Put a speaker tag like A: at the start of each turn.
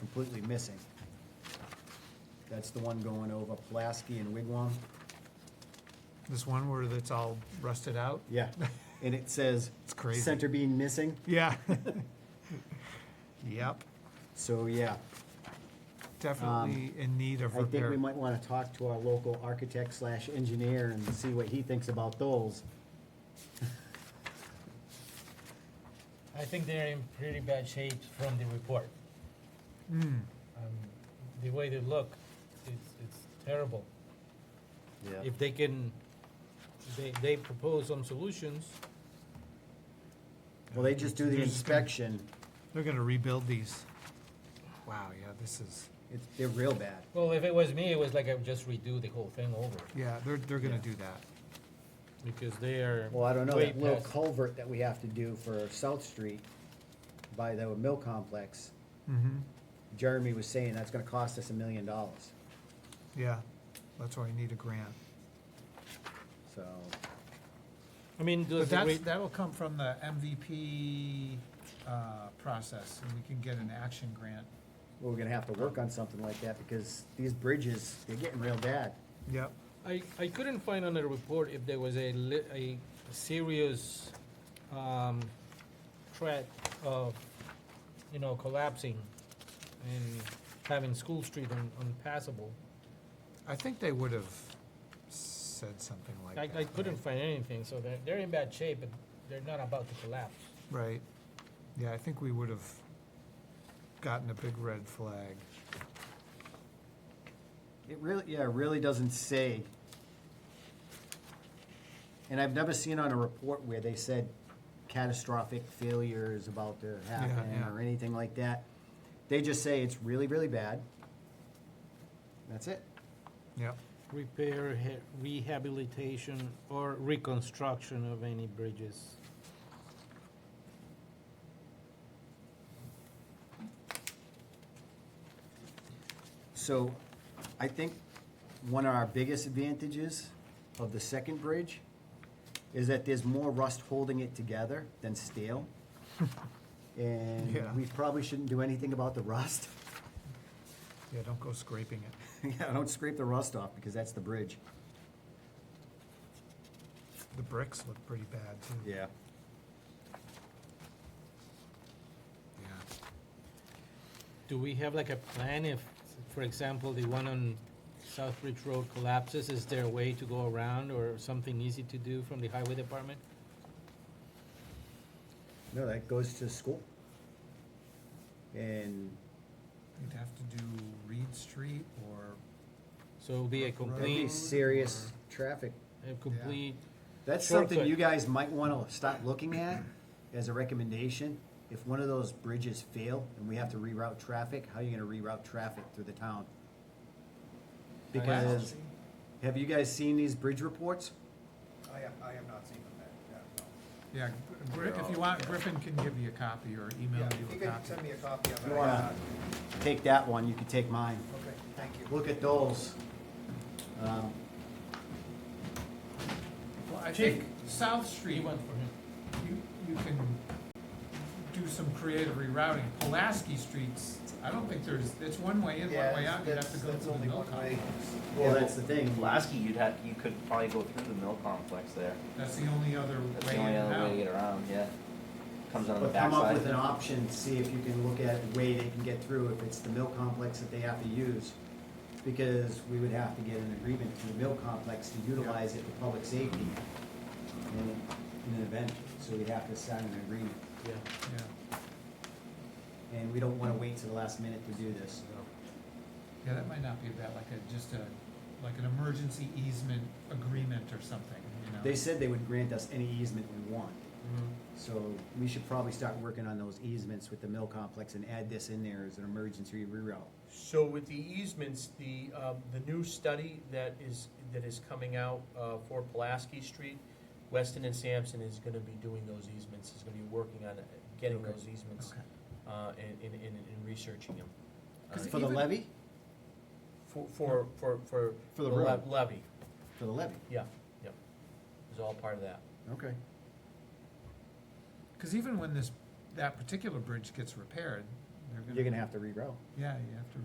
A: completely missing. That's the one going over Pulaski and Wigwam.
B: This one where it's all rusted out?
A: Yeah, and it says.
B: It's crazy.
A: Center beam missing,
B: Yeah. Yep,
A: so yeah,
B: definitely in need of
A: I think
B: repair.
A: we might wanna talk to our local architect slash engineer and see what he thinks about those.
C: I think they're in pretty bad shape from the report.
B: Mm,
C: Um, the way they look, it's, it's terrible.
A: Yeah.
C: If they can, they, they propose some solutions.
A: Well, they just do the
B: They're just gonna-
A: inspection,
B: They're gonna rebuild these. Wow, yeah, this is,
A: it's, they're real bad.
C: Well, if it was me, it was like I would just redo the whole thing over
B: yeah, they're, they're gonna
A: Yeah.
B: do that.
C: because they are.
A: Well, I don't know,
C: way
A: that little
C: past-
A: culvert that we have to do for South Street by the mill complex,
B: Mm-hmm,
A: Jeremy was saying that's gonna cost us a million dollars,
B: yeah, that's why I need a grant.
A: so.
C: I mean,
B: But
C: does the
B: that's,
C: re-
B: that'll come from the MVP, uh, process, and we can get an action grant.
A: We're gonna have to work on something like that because these bridges, they're getting real bad.
B: Yep.
C: I, I couldn't find on the report if there was a li- a serious, um, threat of, you know, collapsing and having School Street un- unpassable.
B: I think they would've said something like
C: I,
B: that.
C: I couldn't find anything, so they're, they're in bad shape, but they're not about to collapse.
B: right? Right, yeah, I think we would've gotten a big red flag.
A: It really, yeah, it really doesn't say. And I've never seen on a report where they said catastrophic failure is about to happen
B: yeah.
A: or anything like that. They just say it's really, really bad. That's it.
B: Yep,
C: Repair, he- rehabilitation, or reconstruction of any bridges.
A: So I think one of our biggest advantages of the second bridge is that there's more rust holding it together than steel. And
B: Yeah.
A: we probably shouldn't do anything about the rust.
B: yeah, don't go scraping it,
A: Yeah, don't scrape the rust off because that's the bridge.
B: the bricks look pretty bad too.
A: Yeah.
B: Yeah.
C: Do we have like a plan if, for example, the one on South Ridge Road collapses, is there a way to go around or something easy to do from the highway department?
A: No, that goes to school. And,
B: You'd have to do Reed Street or,
C: So it'll be a
B: Right.
A: that'd be
C: complete,
A: serious traffic.
C: a complete,
A: That's something you guys might wanna start looking at as a recommendation. If one of those bridges fail and we have to reroute traffic, how are you gonna reroute traffic through the town? Because, have you guys seen these bridge reports?
D: I have, I have not seen them yet, yeah, no.
B: yeah, Gr- Gri- if you want, Griffin can give you a copy or email
D: Yeah,
B: you
D: if you
B: a
D: could
B: copy.
D: send me a copy of
A: You
D: it.
A: wanna take that one, you can take mine.
D: Okay, thank you.
A: Look at those. Um,
B: Well, I
C: Chief.
B: think South
C: he
B: Street,
C: went for him.
B: you, you can do some creative rerouting. Pulaski Streets, I don't think there's, it's one way in, one
D: Yeah,
B: way out, you'd
D: that's-
B: have to go
D: that's
B: through the
D: only
B: mill
D: one way.
B: complex.
A: Well, that's the thing.
E: Pulaski, you'd have, you could probably go through the mill complex there.
B: That's the only other
E: That's
B: way
E: the
B: in
E: only other way to
B: and
E: get
B: out.
E: around, yeah. Comes out on the
A: But come up
E: backside.
A: with an option, see if you can look at a way they can get through, if it's the mill complex that they have to use. Because we would have to get an agreement to the mill complex to utilize it for public safety in, in an event, so we'd have to sign an agreement.
C: Yeah.
B: Yeah,
A: And we don't wanna wait to the last minute to do this.
B: yeah, that might not be bad, like a, just a, like an emergency easement agreement or something, you know?
A: They said they would grant us any easement we want, so we should probably start working on those easements with the mill complex and add this in there as an emergency reroute.
F: So with the easements, the, um, the new study that is, that is coming out, uh, for Pulaski Street, Weston and Sampson is gonna be doing those easements, is gonna be working on uh, getting
A: Okay.
F: those easements,
B: Okay.
F: uh, and, and, and, and researching them. Uh,
B: 'Cause
A: For the
B: even-
A: levy?
F: For, for, for, for.
A: For the
F: le-
A: road.
F: Levy,
A: For the levy,
F: yeah, yeah, it's all part of that.
A: okay.
B: Because even when this, that particular bridge gets repaired, they're
A: you're gonna have to reroute.
B: Yeah, you have to